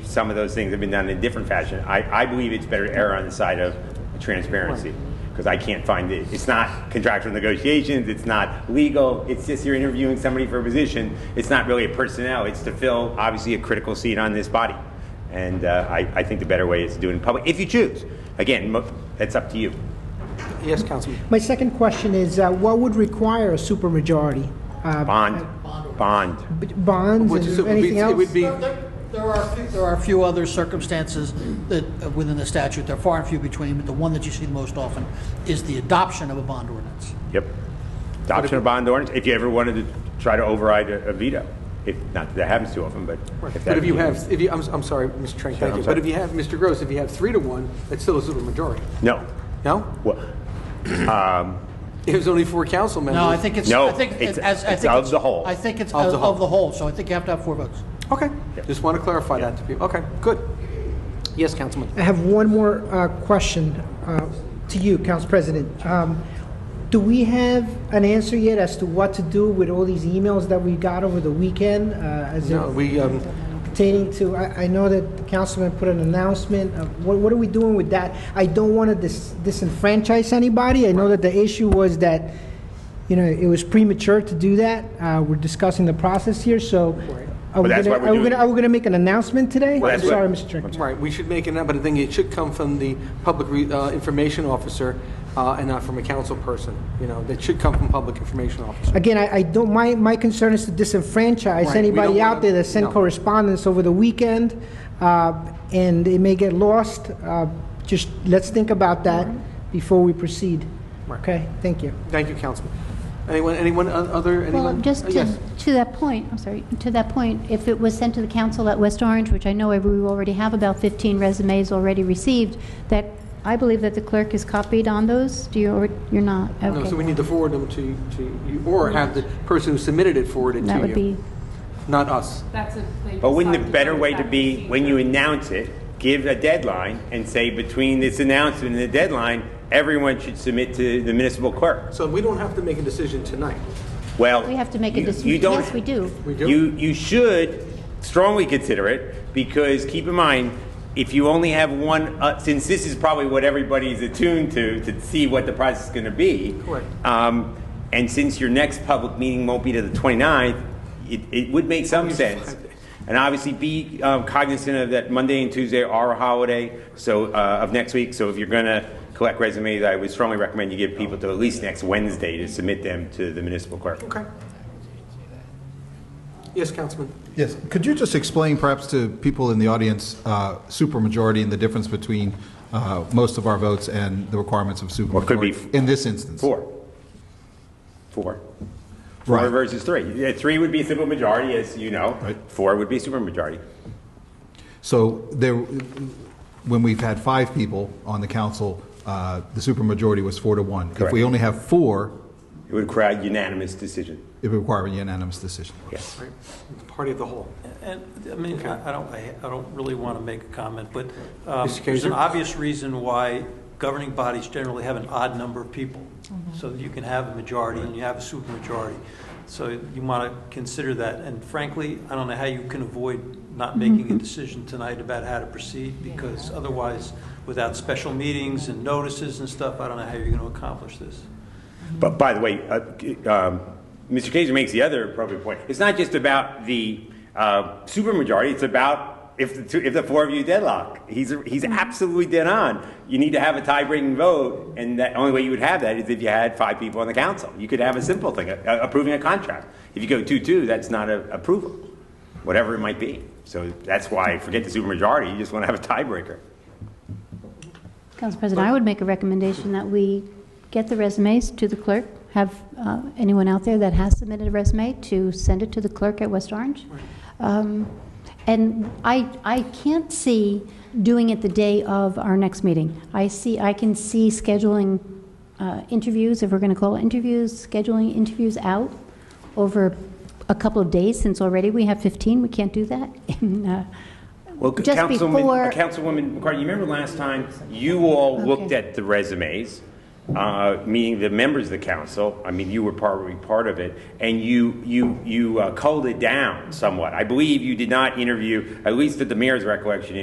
some of those things have been done in a different fashion. I, I believe it's better to err on the side of transparency because I can't find it. It's not contractual negotiations. It's not legal. It's just you're interviewing somebody for a position. It's not really a personnel. It's to fill obviously a critical seat on this body. And uh, I, I think the better way is to do it in public if you choose. Again, mo- that's up to you. Yes, Councilman. My second question is, uh, what would require a supermajority? Uh, Bond, bond. b- Bonds Which is- it would and be- anything It else? would be, There- There there are, a few- there are a few other circumstances that, uh, within the statute, they're far and few between, but the one that you see the most often is the adoption of a bond ordinance. Yep. Adoption of bond ordinance. If you ever wanted to try to override a, a veto, if not that, that happens too often, but if that but if you have, if you, I'm, I'm sorry, Mr. Trank, thank I'm you. sorry. But if you have, Mr. Gross, if you have three to one, that's still a super majority. no, No? well, It was only four council members. No, I think it's, No, I think, it's- it- as, I it's think. of the whole. I think it's Of of the whole. of the whole, so I think you have to have four votes. Okay, Yep. just want to clarify that to people. Okay, good. Yes, Councilman. I have one more uh, question uh, to you, Council President. Um, Do we have an answer yet as to what to do with all these emails that we got over the weekend? uh, as it No, we, um, Pertaining to, I I know that the Councilman put an announcement, uh, what what are we doing with that? I don't want to disenfranchise anybody. I know that the issue was that, you know, it was premature to do that. Uh, We're discussing the process here, so are But we that's why we're gonna- are we doing gonna- it. are we going to make an announcement today? Well, I'm that's what- sorry, Mr. Chairman. right, we should make it up, but I think it should come from the public re- uh, information officer uh, and not from a council person. You know, that should come from public information officer. Again, I, I don't, my, my concern is to disenfranchise Right, we don't anybody wanna- out there that no. sent correspondence over the weekend, uh, and it may get lost. Uh, Just, let's think about that before we proceed. Right. Okay, thank you. Thank you, Councilman. Anyone, anyone, o- other, Well, anyone? just Uh, to, Yes, to that point, I'm sorry, to that point, if it was sent to the council at West Orange, which I know we already have about 15 resumes already received, that, I believe that the clerk is copied on those? Do you, or you're not? No, so we Okay. need to forward them to, to you, or have the person who submitted it forward it to you. That would be, Not us. That's a. they But wouldn't decide the to better go way with to that be, when you procedure. announce it, give a deadline and say between this announcement and the deadline, everyone should submit to the municipal clerk? So we don't have to make a decision tonight. Well. we have to make a you- decision. you don't- Yes, we do. We do? You, you should strongly consider it because keep in mind, if you only have one, uh, since this is probably what everybody's attuned to, to see what the price is going to be. Correct. Um, and since your next public meeting won't be to the 29th, it, it would make some sense. And obviously be um, cognizant of that Monday and Tuesday are a holiday, so, uh, of next week. So if you're going to collect resumes, I would strongly recommend you give people till at least next Wednesday to submit them to the municipal clerk. Okay. Yes, Councilman. Yes, could you just explain perhaps to people in the audience, uh, supermajority and the difference between uh, most of our votes and the requirements of Well, it could be supermajority in this instance? Four. Four. Four Right. versus three. Yeah, Three would be simple majority, as you know. Right. Four would be supermajority. So there, when we've had five people on the council, uh, the supermajority was four to one. If Correct. we only have four, It would require unanimous decision. it would require a unanimous decision. Yes. Right. Party of the whole. And, I mean, I I don't, I I don't really want to make a comment, but um, Mr. there's an Kinzer? obvious reason why governing bodies generally have an odd number of people, so that you can have a majority and you have a supermajority. So you want to consider that, and frankly, I don't know how you can avoid not making a decision tonight about how to proceed, because otherwise, without special meetings and notices and stuff, I don't know how you're going to accomplish this. But by the way, uh, um, Mr. Kaiser makes the other appropriate point. It's not just about the uh, supermajority, it's about if the, two, if the four of you deadlock. He's, he's absolutely dead on. You need to have a tie-breaking vote, and the only way you would have that is if you had five people on the council. You could have a simple thing, a- a- approving a contract. If you go two-two, that's not a approval, whatever it might be. So that's why, forget the supermajority, you just want to have a tiebreaker. Council President, I would make a recommendation that we get the resumes to the clerk, have uh, anyone out there that has submitted a resume to send it to the clerk at West Orange. Um, And I, I can't see doing it the day of our next meeting. I see, I can see scheduling uh, interviews, if we're going to call it interviews, scheduling interviews out over a couple of days, since already we have 15, we can't do that. And, uh, Well, Just Councilman, before- Councilwoman McCartney, you remember last time you all looked Okay. at the resumes uh, meaning the members of the council, I mean, you were probably part of it, and you, you, you uh, culled it down somewhat. I believe you did not interview, at least at the mayor's recollection,